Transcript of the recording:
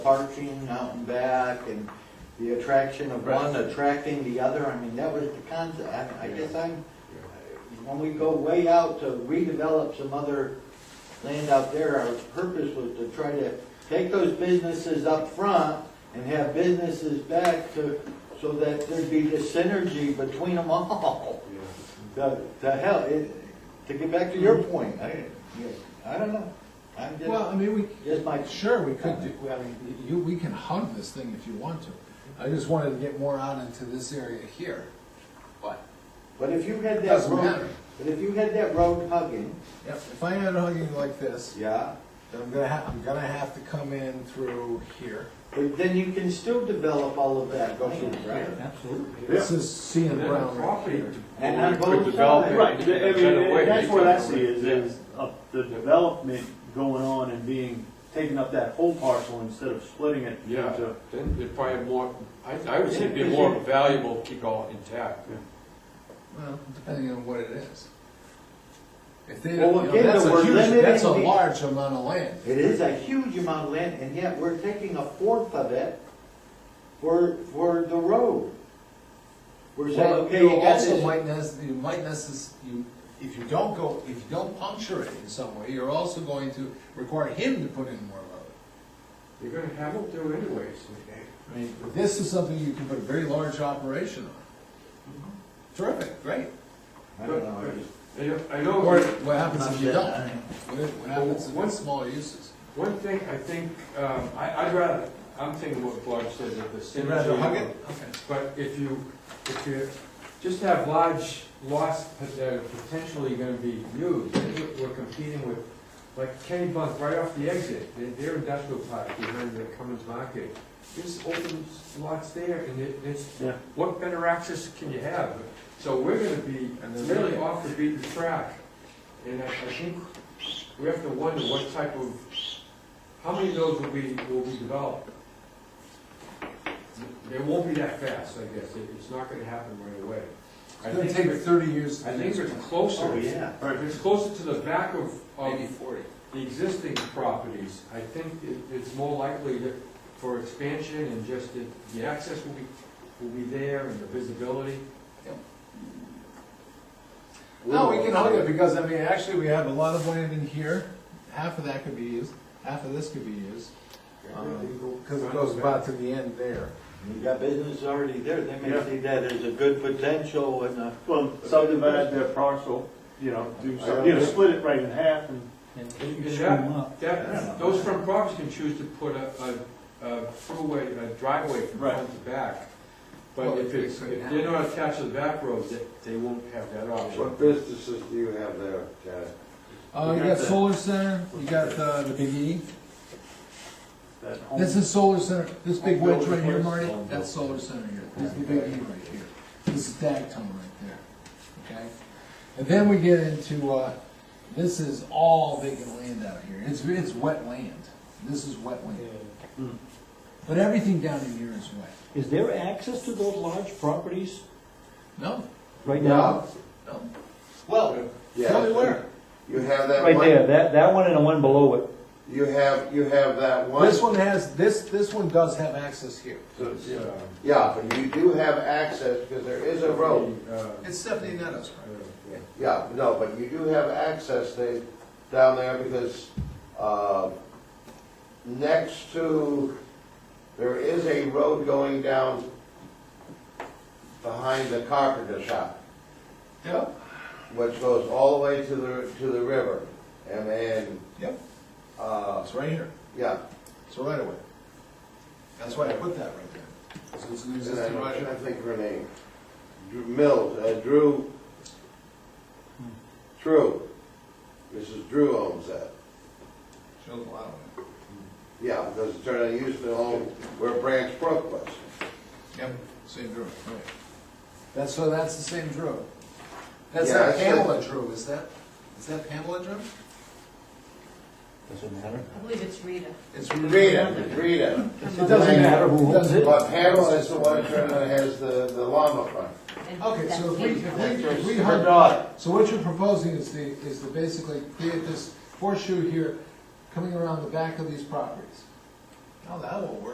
parking out and back and the attraction of one attracting the other, I mean, that was the concept. I, I guess I'm, when we go way out to redevelop some other land out there, our purpose was to try to take those businesses up front and have businesses back to, so that there'd be the synergy between them all. To, to hell, it, to get back to your point, I, I don't know. I'm Mm-hmm. Well, I just, mean, we, just my. sure, we could do, I mean, you, we can hug this thing if you want to. I just wanted to get more out into this area here. But, But if you had that Doesn't road, matter. but if you had that road hugging, yep, if I had hugging like this, yeah, then I'm gonna ha, I'm gonna have to come in through here. but then you can still develop all of that land, right? Absolutely. This is C and Brown right here. And on Well, we both could develop sides. it. Right, I Better way mean, that's to what I cover see it, is, is uh, the development going on and being, taking up that whole parcel instead of splitting it. Yeah, into- then it'd probably have more, I, I would say it'd be more valuable, to keep all intact. Well, depending on what it is. If they, you Well, know, again, that's we're a limiting huge, that's a the- large amount of land. It is a huge amount of land, and yet we're taking a fourth of it for, for the road. We're saying, Well, okay, you you got also this, might necess, you might necess, you, if you don't go, if you don't puncture it in some way, you're also going to require him to put in more road. You're gonna have them do anyways. I mean, this is something you can put a very large operation on. Mm-hmm. Terrific, great. I don't know. I know- I Or know, what happens if you Not don't? that- What what happens if it's smaller uses? one thing I think, um, I, I'd rather, I'm thinking what Blanche said, that the synergy. Okay. But if you, if you just have large lots that are potentially gonna be used, then we're- we're competing with, like Kenny Bunk right off the exit, their- their industrial park behind the Cummins Market. There's open lots there, and it, it's, Yeah. what better access can you have? So we're gonna be really off the beaten track, and I, I think we have to wonder what type of, how many of those will be, will be developed? It won't be that fast, I guess, It- it's not gonna happen right away. I It's gonna think, take it- thirty years. to I do think this. it's closer, Oh, if yeah. it's closer to the back of, Oh. Maybe of forty. the existing properties, I think it, it's more likely that for expansion and just that the access will be, will be there and the visibility. No, we can hug it, because, I mean, actually, we have a lot of land in here, half of that could be used, half of this could be used. Uh-huh. Because it goes about to the end there. Um, You got business already there, they may Yeah. see that as a good potential and a. Well, subdivide their parcel, you know, do some, you know, split it right in half and. And that, that, those front properties can choose to put a, a, a throughway, a driveway from Right. front to back. But Well, if it's, they if couldn't have they're not attached to the back roads, they, they won't have that option. What businesses do you have there, Chad? Uh, you You got got the- solar center, you got the, the Big E. that home- This is solar center, this big Home wedge building right here, place. Marty, that's solar center here, this is the Big E right here. This is Dagtown right there, okay? And then we get into, uh, this is all vacant land out here, it's, it's wet land, this is wet land. Hmm. But everything down in here is wet. Is there access to those large properties No, right now? no, Well, tell me where. You have that Right there, one, that, that one and the one below it. you have, you have that one. This one has, this, this one does have access here. So it's, uh, Yeah, but you do have access, because there is a road. the, uh, It's Stephanie Meadows, uh, right? yeah. Yeah, no, but you do have access there, down there, because, uh, next to, there is a road going down behind the carpenter shop. Yep, which goes all the way to the, to the river. And then, yep, uh, it's right here, yeah, it's a right away. That's why I put that right there. So it's an and I existing right I away. think her name, Drew Mills, uh, Drew, True, Mrs. Drew owns that. Shows a lot of it. Yeah, because it turned out he used to own where Branch Brook was. Yep, same drill, right. That's, so that's the same drill. That's Yeah, not that's Pamela Drew, is that, is that Pamela Drew? Doesn't matter. I believe it's Rita. It's Rita, Rita. It doesn't matter who owns it. But Pamela is the one that turned out has the, the llama farm. And Okay, that's so if we, Kate. if we, if we her hug daughter, So what you're proposing is the, is to basically create this horseshoe here, coming around the back of these properties. How that will work.